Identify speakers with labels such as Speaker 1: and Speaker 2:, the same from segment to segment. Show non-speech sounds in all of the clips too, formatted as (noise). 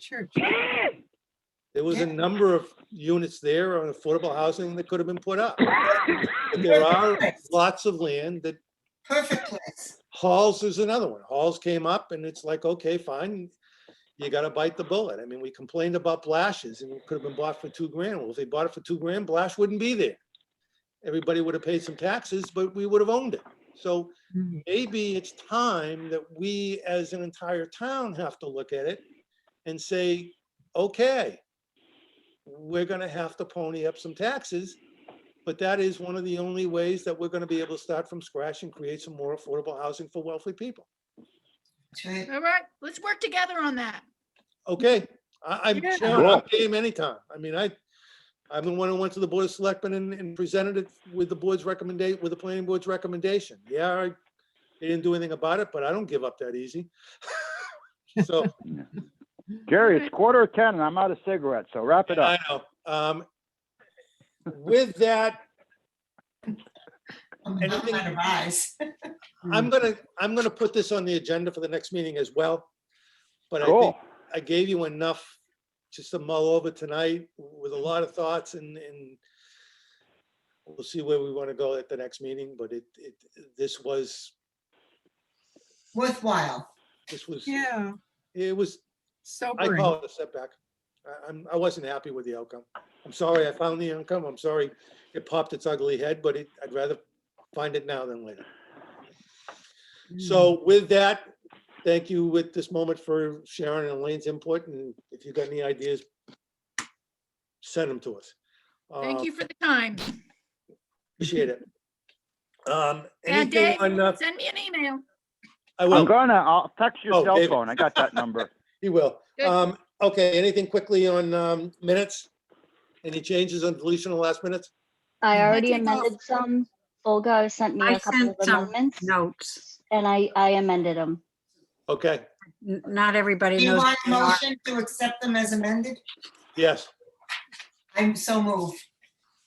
Speaker 1: church.
Speaker 2: There was a
Speaker 1: Yeah.
Speaker 2: number of units there on affordable housing that could have been put up. But there are lots of land that,
Speaker 1: Perfect place.
Speaker 2: Halls is another one. Halls came up and it's like, okay, fine. You gotta bite the bullet. I mean, we complained about Blash's and it could have been bought for two grand. Well, if they bought it for two grand, Blash wouldn't be there. Everybody would have paid some taxes, but we would have owned it. So
Speaker 1: Mm.
Speaker 2: maybe it's time that we as an entire town have to look at it and say, okay, we're gonna have to pony up some taxes, but that is one of the only ways that we're gonna be able to start from scratch and create some more affordable housing for wealthy people.
Speaker 1: That's right.
Speaker 3: All right, let's work together on that.
Speaker 2: Okay, I, I'm,
Speaker 3: Yeah.
Speaker 2: down- I'm game anytime. I mean, I, I'm the one who went to the Board of Selectmen and, and presented it with the board's recommendation, with the planning board's recommendation. Yeah, I, they didn't do anything about it, but I don't give up that easy. (laughs) So,
Speaker 4: Jerry, it's
Speaker 3: Alright.
Speaker 4: quarter of ten and I'm out of cigarettes, so wrap it
Speaker 2: I
Speaker 4: up.
Speaker 2: know. Um, with that,
Speaker 1: I'm not
Speaker 2: Anything-
Speaker 1: trying to rise.
Speaker 2: I'm gonna, I'm gonna put this on the agenda for the next meeting as well. But I think
Speaker 4: Cool.
Speaker 2: I gave you enough just to mull over tonight with a lot of thoughts and, and we'll see where we want to go at the next meeting, but it, it, this was,
Speaker 1: Worthwhile.
Speaker 2: this was,
Speaker 5: Yeah,
Speaker 2: it was, I
Speaker 5: sobering.
Speaker 2: call it a setback. I, I'm, I wasn't happy with the outcome. I'm sorry I found the outcome. I'm sorry it popped its ugly head, but it, I'd rather find it now than later. Mm-hmm. So with that, thank you at this moment for Sharon and Elaine's input, and if you've got any ideas, send them to us.
Speaker 3: Thank
Speaker 2: Uh,
Speaker 3: you for the time.
Speaker 2: Appreciate it. Um, anything
Speaker 3: And Dave,
Speaker 2: on, uh,
Speaker 3: send me an email.
Speaker 2: I
Speaker 4: I'm
Speaker 2: will,
Speaker 4: gonna, I'll text
Speaker 2: Oh,
Speaker 4: your cell
Speaker 2: David.
Speaker 4: phone. I got that number.
Speaker 2: he will.
Speaker 3: Good.
Speaker 2: Um, okay, anything quickly on, um, minutes? Any changes on deletion of last minutes?
Speaker 6: I
Speaker 5: Mhm.
Speaker 6: already
Speaker 5: Take off.
Speaker 6: amended some. Olga sent me
Speaker 5: I
Speaker 6: a couple of
Speaker 5: sent some
Speaker 6: amendments
Speaker 5: notes.
Speaker 6: and I, I amended them.
Speaker 2: Okay,
Speaker 5: N- Not
Speaker 1: Do
Speaker 5: everybody
Speaker 1: you
Speaker 5: knows.
Speaker 1: want a
Speaker 5: what they are.
Speaker 1: motion to accept them as amended?
Speaker 2: yes.
Speaker 1: I'm so moved.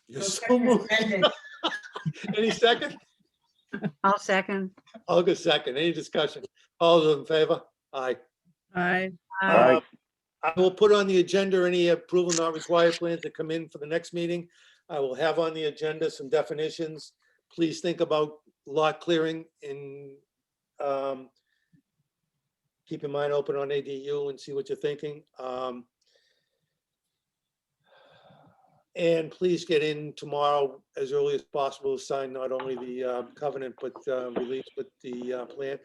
Speaker 2: You're
Speaker 1: Those
Speaker 2: so moved.
Speaker 1: amended.
Speaker 2: Any second?
Speaker 5: I'll second.
Speaker 2: August second, any discussion? All those in favor? Aye.
Speaker 5: Aye.
Speaker 4: Aye.
Speaker 2: Um, I will put on the agenda any approval not required plans that come in for the next meeting. I will have on the agenda some definitions. Please think about lot clearing in, um, keep your mind open on ADU and see what you're thinking. Um, and please get in tomorrow as early as possible, sign not only the uh, covenant, but, uh, release, but the, uh, plan.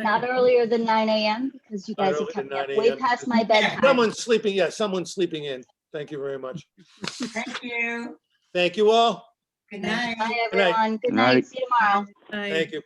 Speaker 6: Not earlier than nine AM because you
Speaker 2: Not
Speaker 6: guys have
Speaker 2: earlier than
Speaker 6: kept me up
Speaker 2: 9
Speaker 6: way
Speaker 2: a.m. (laughs)
Speaker 6: past my bedtime.
Speaker 2: Someone's sleeping, yeah, someone's sleeping in. Thank you very much.
Speaker 1: Thank you.
Speaker 2: Thank you all.
Speaker 1: Good night.
Speaker 6: Bye,
Speaker 2: Good night.
Speaker 6: everyone. Good
Speaker 4: Night.
Speaker 6: night. See you tomorrow.
Speaker 2: Thank you.